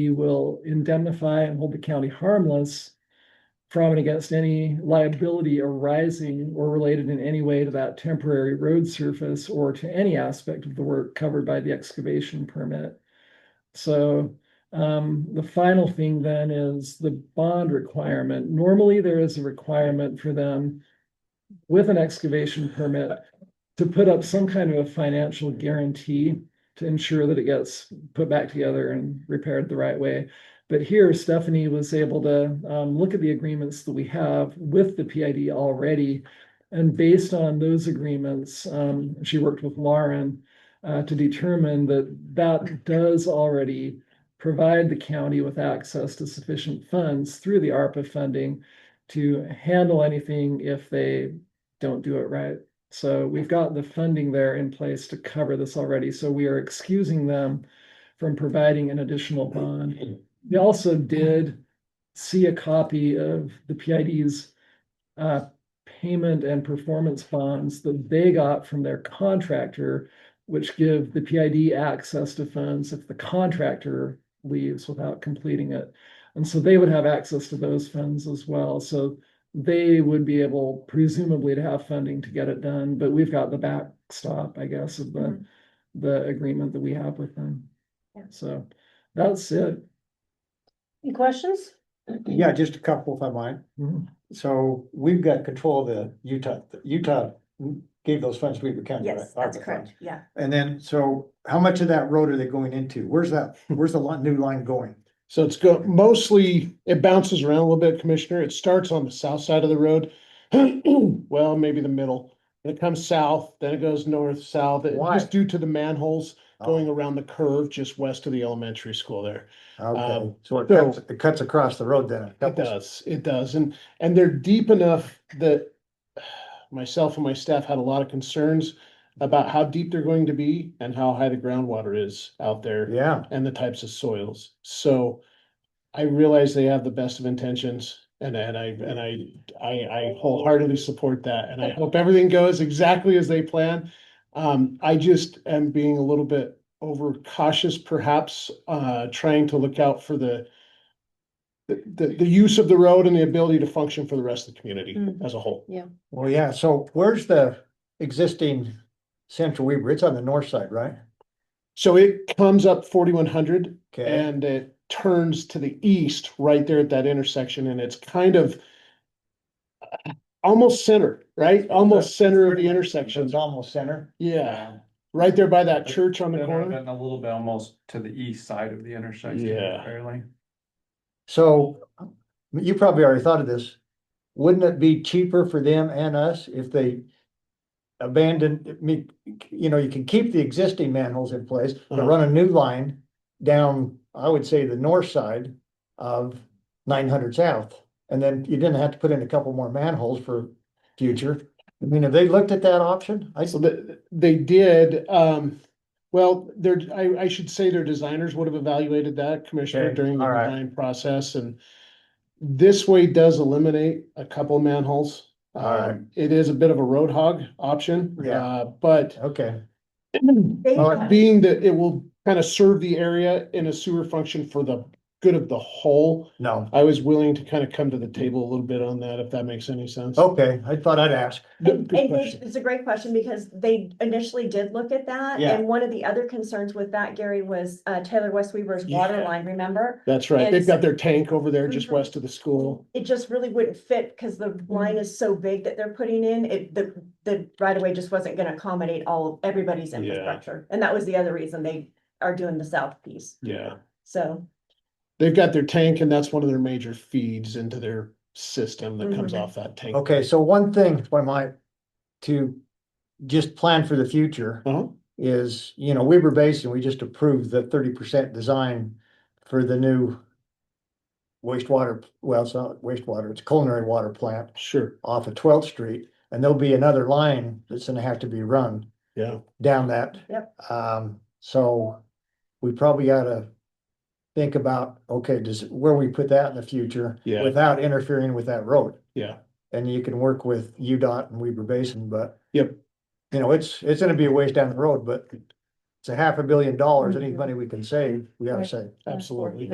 we will indemnify and hold the county harmless from and against any liability arising or related in any way to that temporary road surface or to any aspect of the work covered by the excavation permit. So um, the final thing then is the bond requirement. Normally, there is a requirement for them with an excavation permit to put up some kind of a financial guarantee to ensure that it gets put back together and repaired the right way. But here Stephanie was able to um, look at the agreements that we have with the PID already. And based on those agreements, um, she worked with Lauren uh, to determine that that does already provide the county with access to sufficient funds through the ARPA funding to handle anything if they don't do it right. So we've got the funding there in place to cover this already, so we are excusing them from providing an additional bond. They also did see a copy of the PID's uh, payment and performance bonds that they got from their contractor, which give the PID access to funds if the contractor leaves without completing it. And so they would have access to those funds as well, so they would be able presumably to have funding to get it done, but we've got the backstop, I guess, of the, Mhm. the agreement that we have with them. Yeah. So that's it. Any questions? Yeah, just a couple if I might. Mm-hmm. Mhm. So we've got control of the Utah, Utah gave those funds to Weaver County. right? Yes, that's ARPA funds. correct, yeah. And then, so how much of that road are they going into? Where's that, where's the lot, new line going? So it's go mostly, it bounces around a little bit, Commissioner. It starts on the south side of the road. Well, maybe the middle. And it comes south, then it goes north, south. It- Why? Just due to the manholes Oh, going around the curve just west of the elementary school there. Okay, um, so it so- cuts, it cuts across the road then. a It couple- does, it does. And, and they're deep enough that myself and my staff had a lot of concerns about how deep they're going to be and how high the groundwater is out there. Yeah, and the types of soils. So I realize they have the best of intentions and, and I, and I, I, I wholeheartedly support that. And I hope everything goes exactly as they plan. Um, I just am being a little bit overcautious perhaps, uh, trying to look out for the the, the, the use of the road and the ability to function for the rest of the community Mhm. as a whole. well, yeah, so where's the existing Central Weaver? It's on the north side, right? So it comes up forty-one hundred Okay, And it turns to the east right there at that intersection and it's kind of uh, almost center, right? Almost center of the intersection. it's almost center. Yeah, right there by that church on the Center and corner. then a little bit almost to the east side of the intersection. Yeah. Barely. So you probably already thought of this. Wouldn't it be cheaper for them and us if they abandoned, I mean, you know, you can keep the existing manholes in place, but Uh-huh. run a new line down, I would say, the north side of nine hundred south. And then you didn't have to put in a couple more manholes for future. I mean, have they looked at that option? I, So that, they did, um, well, their I, I should say their designers would have evaluated that commissioner Okay, during the all right. design process and this way does eliminate a couple manholes. All right. Um, it is a bit of a road hog option, Yeah. uh, but okay, They- Being that it will kind of serve the area in a sewer function for the good of the whole, no, I was willing to kind of come to the table a little bit on that, if that makes any sense. okay, I thought I'd ask. Good- And good they- question. It's a great question because they initially did look at that. Yeah. And one of the other concerns with that, Gary, was uh, Taylor West Weaver's water Yeah. line, remember? That's right. They've got their tank over there just Mhm. west of the school. It just really wouldn't fit because the Mm-hmm. line is so big that they're putting in. It, the, the right of way just wasn't gonna accommodate all, everybody's Yeah. infrastructure. And that was the other reason they are doing the south piece. Yeah. So, They've got their tank and that's one of their major feeds into their system that comes Mhm. off that tank. Okay, so one thing, if I might, to just plan for the future. Uh-huh. is, you know, Weber Basin, we just approved the thirty percent design for the new wastewater, well, it's not wastewater, it's culinary water plant Sure. off of Twelfth Street, and there'll be another line that's gonna have to be run Yeah. down that. Yep. Um, so we probably gotta think about, okay, does, where we put that in the future Yeah. without interfering with that road. Yeah. And you can work with UDOT and Weber Basin, but. Yep. You know, it's, it's gonna be a ways down the road, but it's a half a billion dollars, any money we can save, we gotta Right. save. Absolutely.